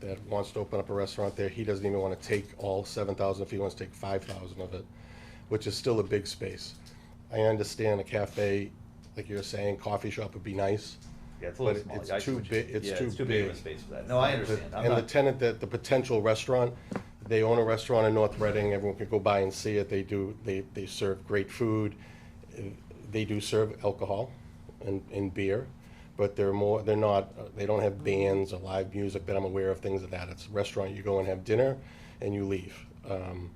that wants to open up a restaurant there, he doesn't even want to take all seven thousand, if he wants to take five thousand of it, which is still a big space. I understand a cafe, like you're saying, coffee shop would be nice. Yeah, it's a little But small. it's I see too what you- big- it's yeah, too big of a big. space for that. No, I understand. I'm And the not, tenant, that, the potential restaurant, they own a restaurant in North Reading, everyone can go by and see it, they do, they, they serve great food. They do serve alcohol and, and beer, but they're more, they're not, they don't have bands or live music that I'm aware of, things of that. It's a restaurant, you go and have dinner and you leave. Um,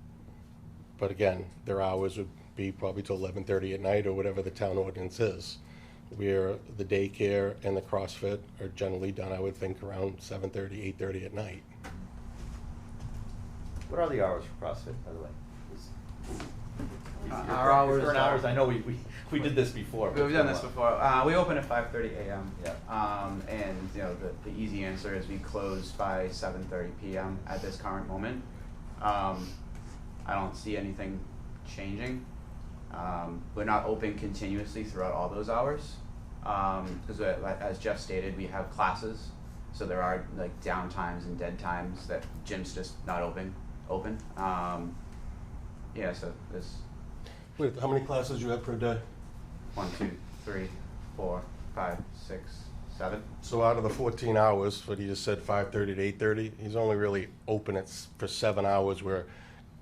But again, their hours would be probably till eleven thirty at night or whatever the town ordinance is. Where the daycare and the CrossFit are generally done, I would think around seven thirty, eight thirty at night. what are the hours for CrossFit, by the way? Is- your Uh, Our current- your hours. Current are- hours, I know we, we, we did this before. but We've done this it's been a before. Uh, we open at five thirty AM. Yeah. Um, and, you know, the, the easy answer is we close by seven thirty PM at this current moment. Um, I don't see anything changing. Um, we're not open continuously throughout all those hours. Um, cause uh, like- as Jeff stated, we have classes, so there are like downtimes and dead times that gym's just not open, open. Um, yeah, so there's Wait, how many classes do you have per day? One, two, three, four, five, six, seven. So out of the fourteen hours, what he just said, five thirty to eight thirty, he's only really open at, s- for seven hours where,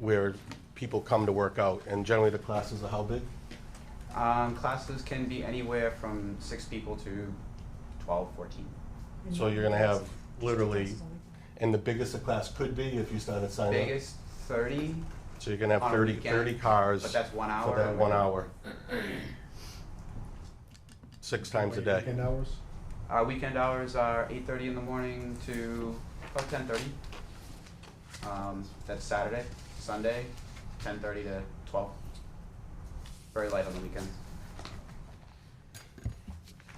where people come to work out. And generally, the classes are how big? Um, classes can be anywhere from six people to 12, 14. So you're gonna have literally, and the biggest a class could be if you started signing up. Biggest 30, So you're gonna have On a 30 weekend, 30 cars. but that's one hour For that or- one hour. Six times a day. Weekend hours? our weekend hours are 8.30 in the morning to about 10.30. Um, that's Saturday, Sunday, 10.30 to 12. Very light on the weekends.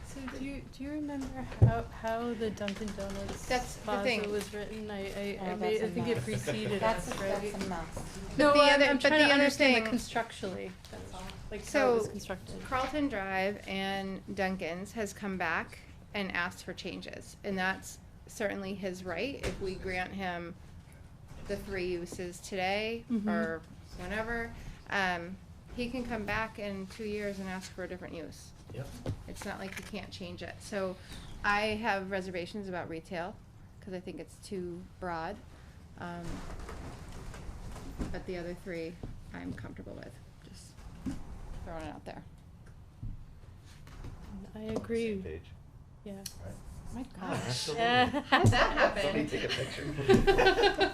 So do you, do you remember how, how the Dunkin' Donuts That's the plaza thing. was written? I, I, I Oh, made, that's I a think it mess. preceded That's, us, a- right? that's a mess. But No, the I'm, other- I'm but trying the to other understand the thing- constructually, that's all, like how it was So, constructed. Carlton Drive and Duncan's has come back and asked for changes, and that's certainly his right if we grant him the three uses today Mhm. or whenever. Um, he can come back in two years and ask for a different use. Yep. It's not like you can't change it. So I have reservations about retail, cause I think it's too broad. Um, but the other three, I'm comfortable with, just throwing it out there. I while. Same agree, page, yeah. right? My How'd that happen? Somebody take a picture.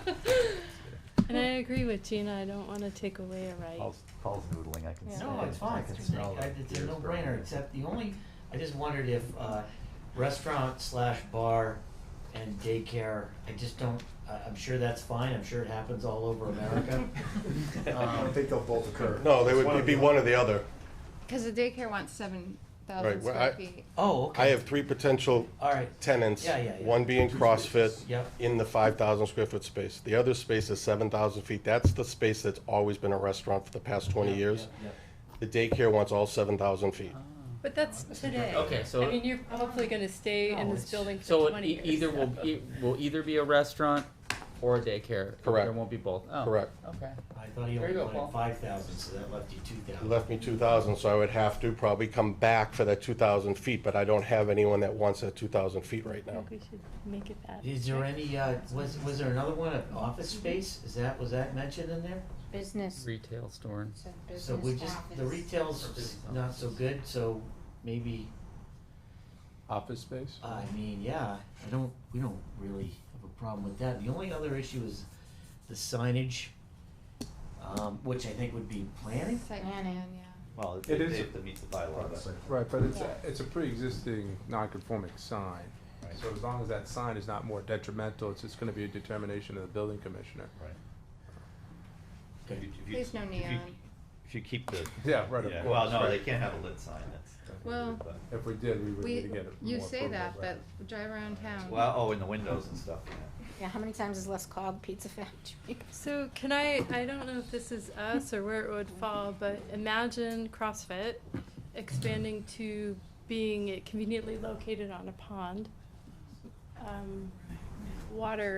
And I agree with Gina, I don't wanna take away a right. Paul's, Paul's noodling, I can Yeah. smell No, it. it's I fine, can it's smell a, the it's a gears burning. no-brainer, except the only, I just wondered if, uh, restaurant slash bar and daycare, I just don't, I, I'm sure that's fine, I'm sure it happens all over America. Um, I um, don't think they'll both occur. No, they It's would be the one or the other. Cause the daycare wants seven Right, thousand well, square I- feet. Oh, okay. I have three potential All right, tenants. Yeah, yeah, yeah. One being CrossFit Yep. in the five thousand square foot space. The other space is seven thousand feet. That's the space that's always been a restaurant for the past twenty Yeah, years. yeah, The daycare wants all seven thousand feet. But that's today. Okay, so- I mean, you're hopefully gonna stay No, in this it's- building for So it twenty e- years. either will, so- e- will either be a restaurant or a daycare. Correct. There won't be both. Oh, Correct. Okay. yeah. I thought he There only you go, wanted Paul. five thousand, so that left you two thousand. Left me two thousand, so I would have to probably come back for that two thousand feet, but I don't have anyone that wants that two thousand feet right I now. think we should make it that. Is there any, uh, was, was there another one, an office space, is that, was that mentioned in there? Business, Retail store. so So we business just, the office. retail's is not so good, so maybe, office space? Uh, I mean, yeah, I don't, we don't really have a problem with that. The only other issue is the signage, um, which I think would be planning. Site Yeah. plan, yeah. Well, It if is- they have to meet the bylaw, that's. Right, but it's, a- it's a pre-existing non-conforming sign. So as long as that sign is not more detrimental, it's just gonna be a determination of the building commissioner. Right. Okay. If you- if you- There's no if you- neon. If you keep the. Yeah, right, of yeah, course, Well, no, right. they can't have a lit sign, that's. Well, If we did, we would need to We, get it you more say approval, that, right. but drive around town. Well, oh, in the windows and stuff, yeah. Yeah, how many times is Les called Pizza Factory? So can I, I don't know if this is us or where it would fall, but imagine CrossFit expanding to being conveniently located on a pond. Um, water